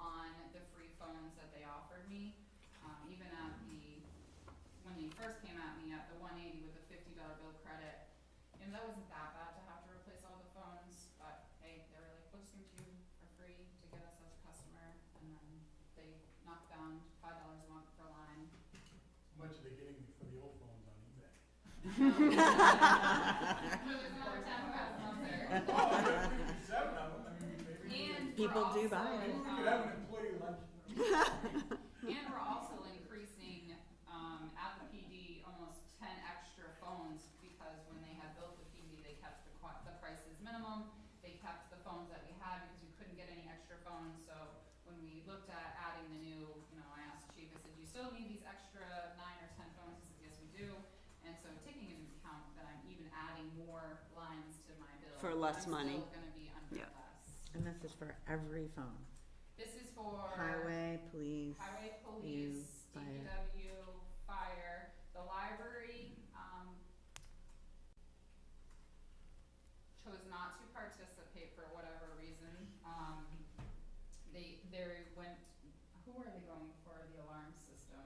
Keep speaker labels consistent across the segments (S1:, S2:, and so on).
S1: Um, Um,
S2: Oh, Seven of them, I mean, maybe.
S1: And. we're
S3: People do
S1: also um,
S3: buy it.
S2: We
S1: in-
S2: could have an employee lunch.
S1: And we're also increasing, um, at the PD, almost ten extra phones, because when they had built the PD, they kept the qui- the prices minimum. They kept the phones that we had, because we couldn't get any extra phones, so when we looked at adding the new, you know, I asked chief, I said, do you still need these extra nine or ten phones? He said, yes, we do. And so taking into account that I'm even adding more lines to my bill.
S3: For less
S1: I'm
S3: money.
S1: still gonna be under
S3: Yeah.
S1: less.
S4: And this is for every phone,
S1: This is for.
S4: highway, police.
S1: Highway, police,
S4: fire.
S1: DPW, fire, the library, um, chose not to participate for whatever reason, um, they, they went, who are they going for the alarm system?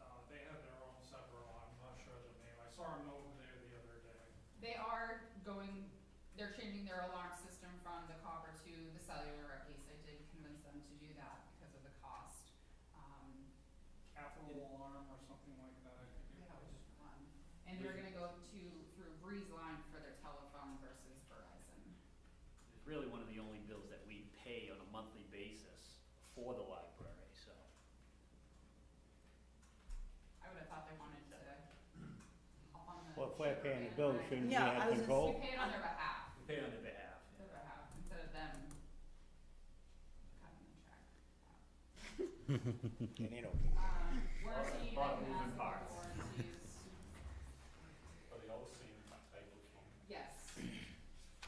S2: Uh, they have their own separate one, I'm not sure of the name, I saw them over there the other day.
S1: They are going, they're changing their alarm system from the copper to the cellular, at least I did convince them to do that because of the cost, um,
S2: Capital Alarm or something like that, I think it
S1: Yeah,
S2: was.
S1: which one? And they're gonna go to, through Breeze Line for their telephone versus Verizon.
S5: It's really one of the only bills that we pay on a monthly basis for the library, so.
S1: I would've thought they wanted to hop on the.
S6: Well, if we're paying the bill, shouldn't we
S3: Yeah, I
S6: have
S3: was just-
S6: control?
S1: We pay it on their behalf,
S5: We pay on their behalf, yeah.
S1: their behalf, instead of them cutting the check.
S6: And they don't care.
S1: Um, warranty, I can
S5: Bottom moving
S1: ask them for
S5: parts.
S1: warranties,
S2: But they all seem type of phone.
S1: yes.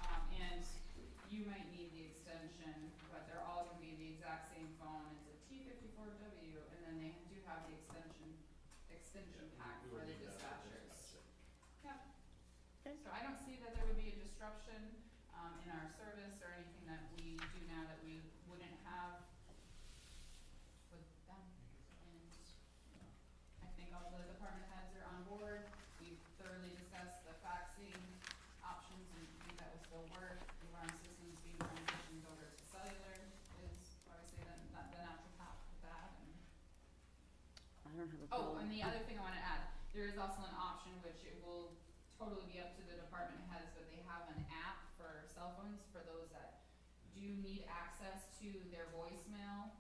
S1: Um, and you might need the extension, but they're all gonna be the exact same phone, it's a T fifty-four W, and then they do have the extension, extension pack for the dispatchers. Yep.
S4: Okay.
S1: So I don't see that there would be a disruption, um, in our service or anything that we do now that we wouldn't have with them. And I think all the department heads are on board, we've thoroughly discussed the faxing options and I think that will still work. The alarm systems being transitioned over to cellular is obviously the, not the natural path for that and
S3: I don't have a
S1: Oh,
S3: problem.
S1: and the other thing I wanna add, there is also an option which it will totally be up to the department heads, but they have an app for cell phones for those that do need access to their voicemail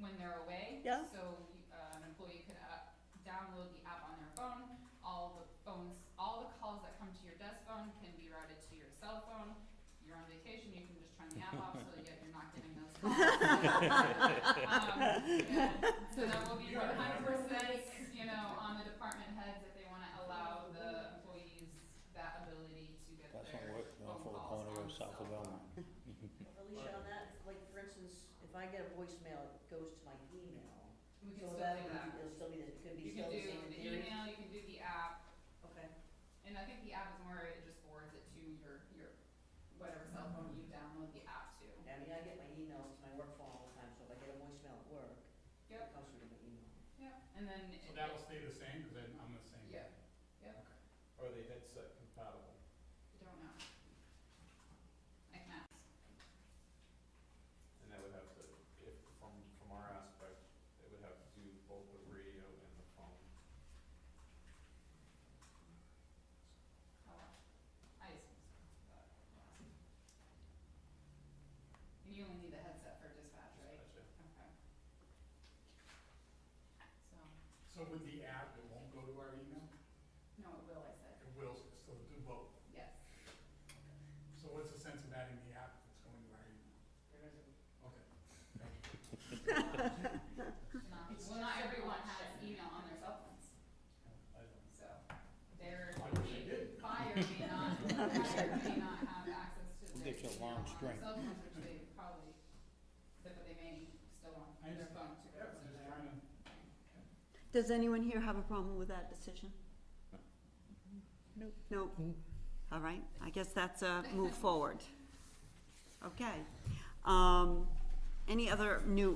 S1: when they're away.
S3: Yeah.
S1: So, uh, an employee could, uh, download the app on their phone, all the phones, all the calls that come to your desk phone can be routed to your cell phone. You're on vacation, you can just turn the app off, so yet you're not getting those calls. Um, yeah. So that will be
S2: You are
S1: one hundred percent, you know, on the department heads if they wanna allow the employees that ability to get
S6: That's
S1: their
S6: not working
S1: phone
S6: off of the
S1: calls
S6: corner
S1: on
S6: of
S1: the
S6: South of
S1: cell
S6: Belmont.
S1: phone.
S7: Alicia, on that, like, for instance, if I get a voicemail, it goes to my email.
S1: We can still
S7: So
S1: do
S7: that, would
S1: that.
S7: be- it'll still be, the- it could be
S1: You can
S7: still
S1: do
S7: the same in
S1: the
S7: theory.
S1: email, you can do the app,
S7: Okay,
S1: and I think the app is more, it just forwards it to your, your, whatever cell phone you download the app to.
S7: I mean, I get my emails to my work phone all the time, so if I get a voicemail at work,
S1: Yep.
S7: it comes through to my email.
S1: Yeah. And then.
S2: So
S1: it-
S2: that'll stay the same, cause I'm, I'm the same.
S1: Yeah, yeah.
S2: Are they headset compatible?
S1: I Don't know. I can ask.
S2: And that would have to, if, from, from our aspect, it would have to do both the radio and the phone.
S1: Oh, I just. And you only need the headset for dispatch, right? Okay. So,
S2: So with the app, it won't go to our email?
S1: no, it will, I said,
S2: It will still do both.
S1: yes.
S2: So what's the sense of adding the app if it's going to our email?
S7: There is a
S2: Okay.
S1: Not, Um, well, not everyone has email on their cell phones, so they're,
S2: I wish I did.
S1: fire may not, fire may not have access to
S6: We'll
S1: their
S6: get you a
S1: email
S6: long
S1: on their
S6: string.
S1: cell phones, which they probably, but they may still want
S2: I
S1: their
S2: just-
S1: phone to go to
S2: Yeah, I'm
S1: their.
S2: just trying to.
S3: Does anyone here have a problem with that decision?
S4: Nope.
S3: Nope. All right, I guess that's a move forward. Okay. Um, any other new